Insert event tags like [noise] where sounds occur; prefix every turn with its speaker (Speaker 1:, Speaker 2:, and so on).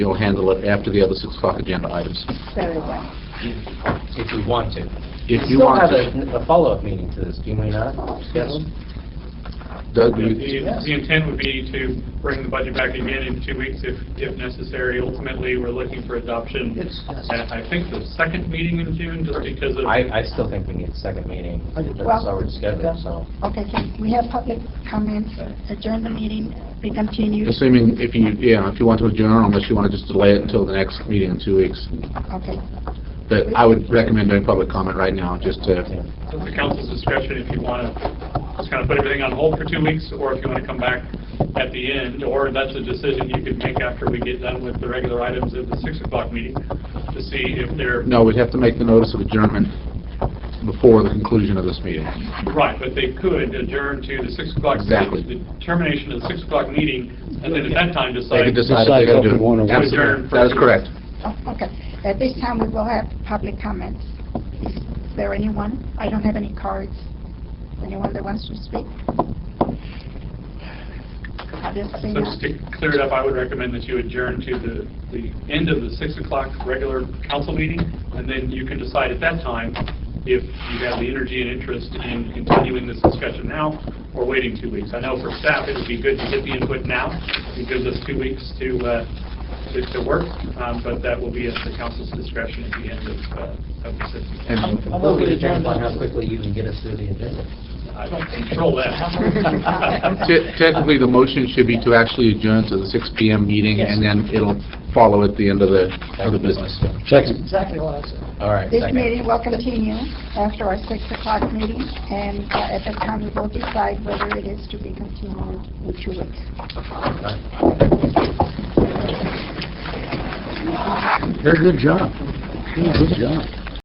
Speaker 1: You'll handle it after the other 6 o'clock agenda items,
Speaker 2: Very well.
Speaker 3: if we want to.
Speaker 1: if you want to.
Speaker 3: Still have a- a follow-up meeting to this, do we not? Yes.
Speaker 1: Doug,
Speaker 4: The
Speaker 1: you-
Speaker 4: the intent would be to bring the budget back again in two weeks if, if necessary. Ultimately, we're looking for adoption at, I think, the second meeting in June, just because of,
Speaker 3: I, I still think we need a second meeting. That's already scheduled, so.
Speaker 2: Okay, can we have public comments, adjourn the meeting, we continue?
Speaker 1: Assuming if you, yeah, if you want to adjourn, unless you want to just delay it until the next meeting in two weeks.
Speaker 2: Okay,
Speaker 1: But I would recommend doing public comment right now, just to,
Speaker 4: it's the council's discretion if you want to just kind of put everything on hold for two weeks, or if you want to come back at the end, or that's a decision you could make after we get done with the regular items at the 6 o'clock meeting to see if they're,
Speaker 1: no, we'd have to make the notice of adjournment before the conclusion of this meeting.
Speaker 4: right, but they could adjourn to the 6 o'clock,
Speaker 1: Exactly.
Speaker 4: the termination of the 6 o'clock meeting, and then at that time
Speaker 1: They
Speaker 4: decide.
Speaker 1: could decide if they got to do it. Absolutely. That is correct.
Speaker 2: Oh, okay. At this time, we will have public comments. Is there anyone? I don't have any cards. Anyone that wants to speak? I didn't see
Speaker 4: So just
Speaker 2: none.
Speaker 4: to clear it up, I would recommend that you adjourn to the, the end of the 6 o'clock regular council meeting, and then you can decide at that time if you have the energy and interest in continuing this discussion now or waiting two weeks. I know for staff, it would be good to get the input now. It gives us two weeks to, uh, to- to work, um, but that will be at the council's discretion at the end of, uh, of the 6 o'clock.
Speaker 1: And
Speaker 3: I'm looking at how quickly you can get us through the agenda.
Speaker 4: I don't control
Speaker 1: [laughs]
Speaker 4: that. [laughs]
Speaker 1: te- Technically, the motion should be to actually adjourn to the 6 PM meeting, and then it'll follow at the end of the, of the business.
Speaker 5: Second.
Speaker 3: All right,
Speaker 2: This
Speaker 3: second.
Speaker 2: meeting will continue after our 6 o'clock meeting, and uh, at that time, we will decide whether it is to be continued in two weeks.
Speaker 5: Very good job. Good job.